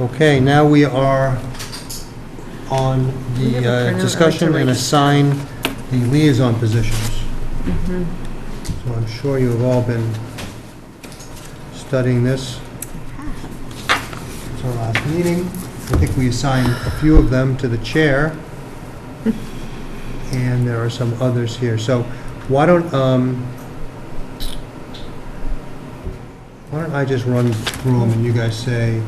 Okay, now we are on We have a the printer, I'd uh, like discussion to and write- assign the liaison positions. Mm-hmm. So I'm sure you have all been studying this. It's our last meeting. I think we assigned a few of them to the chair, and there are some others here. So why don't, um, why don't I just run through them and you guys say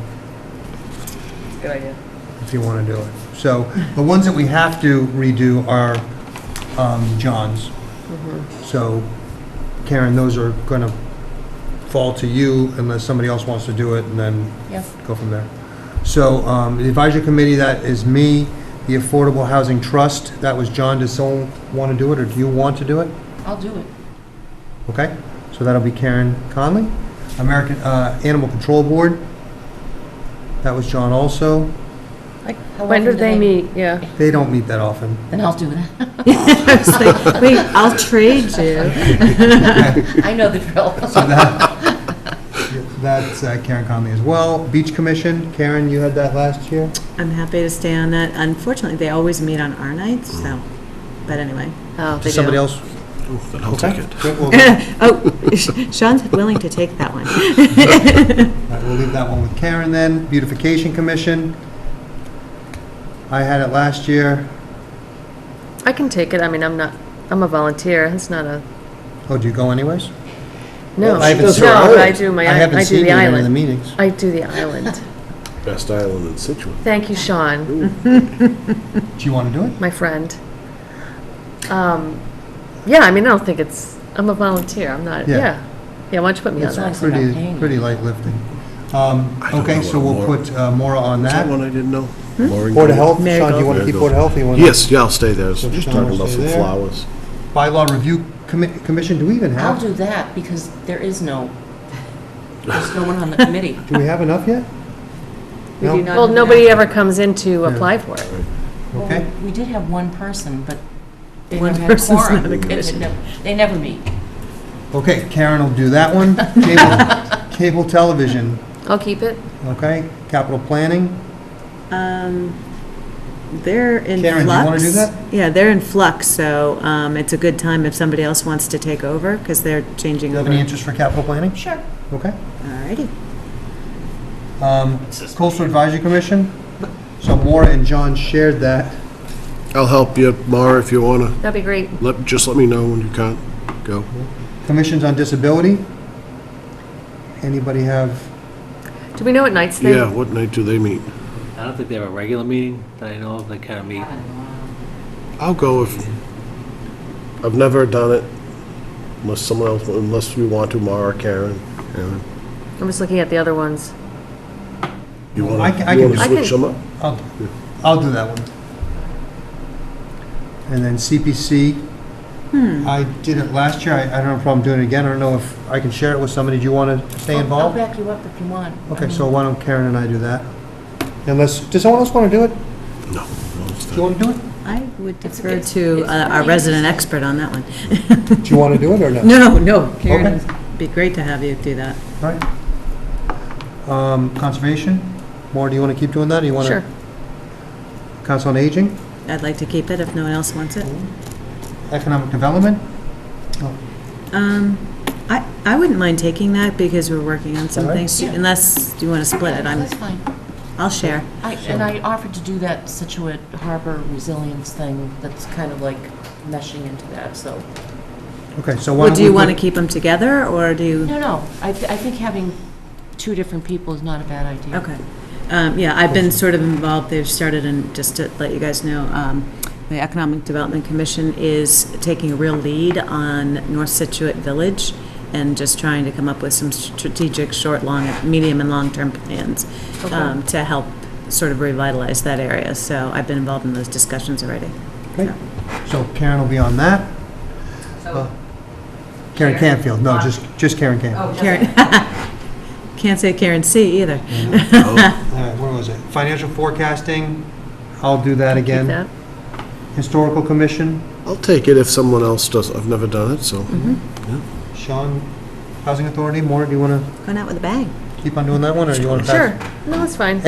Good idea. if you want to do it. So the ones that we have to redo are um, John's. Mm-hmm. So Karen, those are going to fall to you unless somebody else wants to do it and then Yep. go from there. So um, the advisory committee, that is me. The Affordable Housing Trust, that was John. Does someone want to do it or do you want to do it? I'll do it. Okay, so that'll be Karen Conley. American uh, Animal Control Board, that was John also. How When do often they meet? Yeah. They don't meet that often. Then I'll do that. It's like, Wait, I'll trade you. I know the drill. So that, that's uh, Karen Conley as well. Beach Commission, Karen, you had that last year? I'm happy to stay on that. Unfortunately, they always meet on our nights, so, but anyway. Oh, Does somebody else? Then I'll take it. Okay, We'll all Oh, Sean's willing to take that one. right, we'll leave that one with Karen then. Beautification Commission. I had it last year. I can take it. I mean, I'm not, I'm a volunteer. It's not a, Oh, do you go anyways? no. I haven't No, seen- but I do my, I I haven't do seen you the in any of the island. meetings. I do the island. Best island in Situate. Thank you, Sean, Do you want to do it? my friend. Um, Yeah, I mean, I don't think it's, I'm a volunteer. I'm not, Yeah. yeah. Yeah, why don't you put me on It's nice. that? They're not Pretty, paying you. pretty light lifting. Um, I don't Okay, know so what we'll Laura- put uh, Maura on Is that that. one I didn't know? Loring Board Hmm? of Grove? Health, Sean, do you want to Marigold. keep Board of Health? or you wanna- Yes, yeah, I'll stay there. I was So Just Sean will talking about stay some there. flowers. Bylaw Review Commi- Commission, do we even I'll have, do that because there is no, there's no one on the committee. do we have enough yet? We No? do not Well, have nobody ever comes in to apply for it. Well, Okay. We we did have one person, but they One never had person's quorum. not a It had commission. never- They never meet. Okay, Karen will do that one. Cable, cable television, I'll keep it. okay? Capital planning, Um, They're in flux. Karen, do you wanna do that? Yeah, they're in flux, so um, it's a good time if somebody else wants to take over, because they're changing you have over. any interest for capital planning? Sure. Okay. Alrighty. Um, Coastal Advisory Commission, so Maura and John shared that. I'll help you, Mara, if you want That'd be great. to. Let, just let me know when you can't go. Commissions on Disability, anybody have, Do we know what nights they? Yeah, what night do they meet? I don't think they have a regular meeting that I know of. They kind of meet. I'll go if, I've never done it unless someone else, unless you want to, Mara, Karen. Aaron. I'm just looking at the other ones. You I want can- I to, you want can- to I switch can- them up? I'll, I'll do that one. And then CPC, I did it last year, I I don't have a problem doing it again, I don't know if I can share it with somebody, do you want to stay I'll- involved? I'll back you up if you want. I Okay, mean, so why don't Karen and I do that? Unless, does someone else want to do it? No. no, it's Do you not. want to do it? I would It's- defer it's- to it's uh, our pretty resident interesting. expert on that one. Do you want to do it or no? No, no, Karen, Okay. it'd be great to have you do that. All right. Um, Conservation, Maura, do you want to keep doing that? or you want to? Sure. Council on Aging, I'd like to keep it if no one else wants it. Economic Development? Um, I, I wouldn't mind taking that because we're working on some All right. things, Yeah. unless you want to split it, I'm, That's fine. I'll share. I- And I offered to do that Situate Harbor Resilience thing that's kind of like meshing into that, so. Okay, so why Well, don't do we... you want to put- keep them together, or do you, No, no, I, th- I think having two different people is not a bad idea. okay. Um, yeah, I've been sort of involved, they've started, and just to let you guys know, um, the Economic Development Commission is taking a real lead on North Situate Village and just trying to come up with some strategic, short, long, medium, and long-term plans um, to help sort of revitalize that area, so I've been involved in those discussions already. Okay. So Karen will be on that. Uh, Karen Canfield, no, just, just Karen Canfield. Karen, can't say Karen C. either. All right, where was it? Financial Forecasting, I'll do that Keep again. that. Historical Commission, I'll take it if someone else does. I've never done it, so. Mm-hmm. Sean, Housing Authority, Maura, do you want Going out with a bang. to keep on doing that one, or do you want to pass? Sure. No, that's fine.